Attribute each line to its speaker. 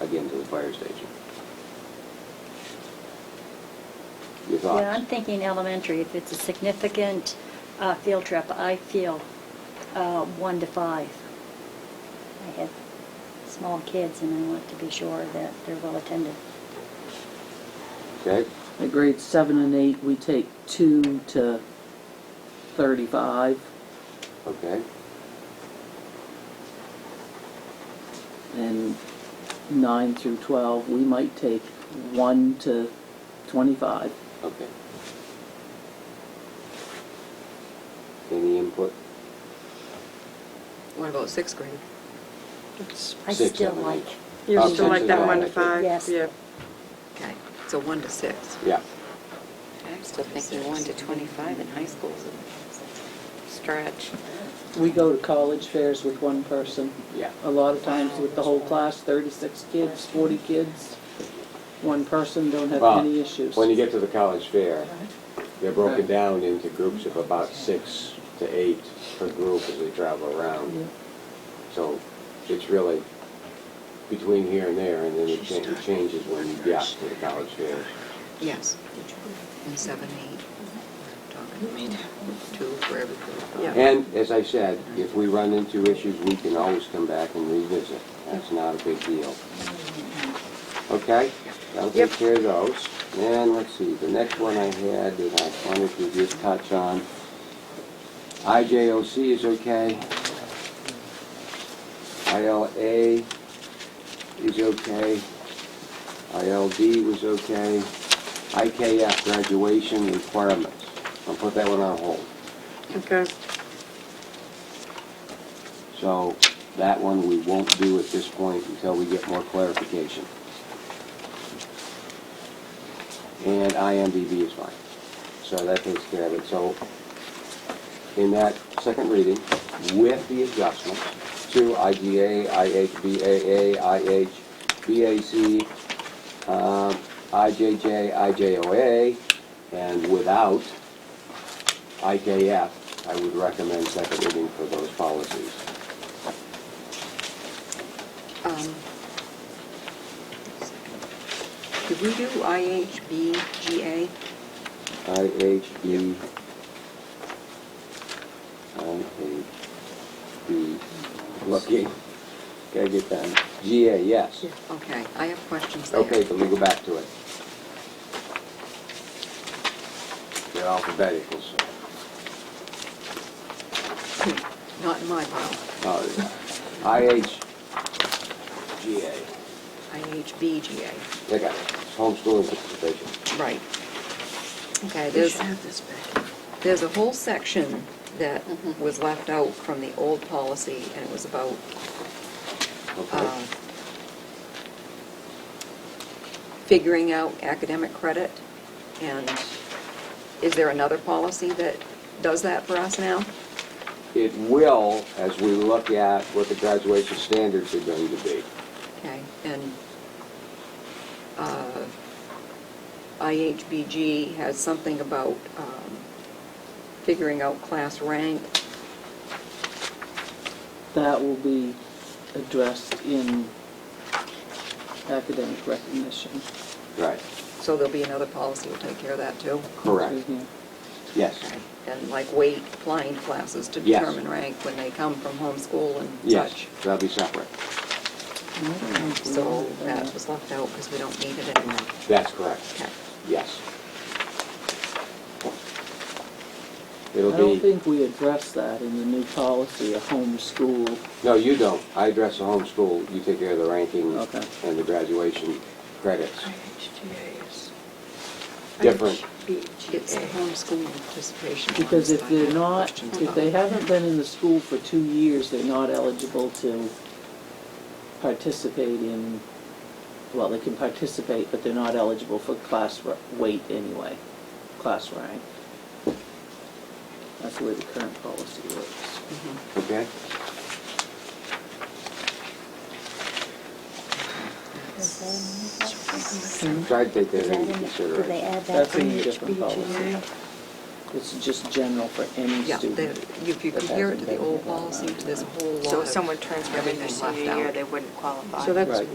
Speaker 1: again to the fire station. Your
Speaker 2: Yeah, I'm
Speaker 1: thoughts?
Speaker 2: thinking elementary. If it's a significant uh, field trip, I feel uh, one to five. I have small kids and I want to be sure that they're well attended.
Speaker 1: Okay,
Speaker 3: At grades seven and eight, we take two to thirty-five,
Speaker 1: okay.
Speaker 3: and nine through twelve, we might take one to twenty-five.
Speaker 1: Okay. Any input?
Speaker 4: What about sixth grade?
Speaker 2: I
Speaker 1: Six,
Speaker 2: still
Speaker 1: seven,
Speaker 2: like.
Speaker 1: eight.
Speaker 5: You
Speaker 1: Oh,
Speaker 5: still
Speaker 1: six
Speaker 5: like
Speaker 1: is
Speaker 5: that
Speaker 1: all
Speaker 5: one to
Speaker 1: right.
Speaker 5: five?
Speaker 2: Yes.
Speaker 5: Yeah.
Speaker 4: Okay, so one to six.
Speaker 1: Yeah,
Speaker 4: I'm still thinking one to 25 in high school is a stretch.
Speaker 3: We go to college fairs with one person.
Speaker 1: yeah.
Speaker 3: A lot of times with the whole class, thirty-six kids, forty kids, one person, don't have
Speaker 1: Well,
Speaker 3: any issues.
Speaker 1: When you get to the college fair, they're broken down into groups of about six to eight per group as they travel around. So it's really between here and there, and then it cha- it changes when you get to the college fair.
Speaker 4: Yes. And seven, eight. Talking Two for every group.
Speaker 5: Yeah.
Speaker 1: And as I said, if we run into issues, we can always come back and revisit. That's not a big deal. Okay, that'll take
Speaker 5: Yep.
Speaker 1: care of those. And let's see, the next one I had that I wanted to just touch on, IJOC is okay. ILA is okay. ILD was okay. IKF graduation requirements. I'll put that one on hold.
Speaker 5: Okay.
Speaker 1: So that one we won't do at this point until we get more clarification. And IMDB is fine. So that takes care of it. So in that second reading, with the adjustments to IGA, IHBAA, IHBAC, um, IJJ, IJOA, and without IKF, I would recommend second reading for those policies.
Speaker 4: Um, Did we do IHBGA?
Speaker 1: IHB. IHB. Lucky. Gotta get that. GA, yes.
Speaker 4: Okay, I have questions there.
Speaker 1: Okay, but we go back to it. They're alphabetical, so.
Speaker 4: Not in my pile.
Speaker 1: Oh, yeah. IH. GA.
Speaker 4: IHBGA,
Speaker 1: They got it. It's Homeschooling participation.
Speaker 4: right. Okay, there's. There's a whole section that was left out from the old policy, and it was about, uh,
Speaker 1: Okay.
Speaker 4: figuring out academic credit, and is there another policy that does that for us now?
Speaker 1: It will, as we look at what the graduation standards are going to be.
Speaker 4: Okay, and, uh, IHBG has something about, um, figuring out class rank.
Speaker 3: That will be addressed in academic recognition.
Speaker 1: Right.
Speaker 4: So there'll be another policy will take care of that too?
Speaker 1: Correct.
Speaker 3: Yeah.
Speaker 1: Yes.
Speaker 4: And like weight applying classes to
Speaker 1: Yes.
Speaker 4: determine rank when they come from homeschool and
Speaker 1: Yes,
Speaker 4: such.
Speaker 1: that'll be separate.
Speaker 4: So that was left out because we don't need it anymore.
Speaker 1: That's correct,
Speaker 4: Okay.
Speaker 1: yes.
Speaker 3: I
Speaker 1: It'll
Speaker 3: don't
Speaker 1: be,
Speaker 3: think we addressed that in the new policy, a homeschool.
Speaker 1: no, you don't. I address the homeschool, you take care of the ranking
Speaker 3: Okay.
Speaker 1: and the graduation credits. Different.
Speaker 4: It's the homeschool participation.
Speaker 3: Because if
Speaker 4: ones that I
Speaker 3: they're
Speaker 4: have
Speaker 3: not,
Speaker 4: questions
Speaker 3: if they
Speaker 4: about.
Speaker 3: haven't been in the school for two years, they're not eligible to participate in, well, they can participate, but they're not eligible for class r- weight anyway, class rank. That's the way the current policy works.
Speaker 4: Mhm.
Speaker 1: Okay?
Speaker 2: Is
Speaker 4: Mm-hmm.
Speaker 1: Try to take that
Speaker 2: that in-
Speaker 1: into
Speaker 2: Did they
Speaker 1: consideration.
Speaker 2: add that?
Speaker 3: That's in a different policy. It's just general for any
Speaker 4: Yeah,
Speaker 3: student.
Speaker 4: the- if you
Speaker 3: that
Speaker 4: compare it
Speaker 3: hasn't
Speaker 4: to the
Speaker 3: been
Speaker 4: old
Speaker 3: in that
Speaker 4: policy,
Speaker 3: amount of
Speaker 4: there's a
Speaker 3: time.
Speaker 4: whole lot of.
Speaker 6: So if someone turns within their
Speaker 4: everything left
Speaker 6: senior year,
Speaker 4: out.
Speaker 6: they wouldn't qualify.
Speaker 5: So that's
Speaker 1: Right.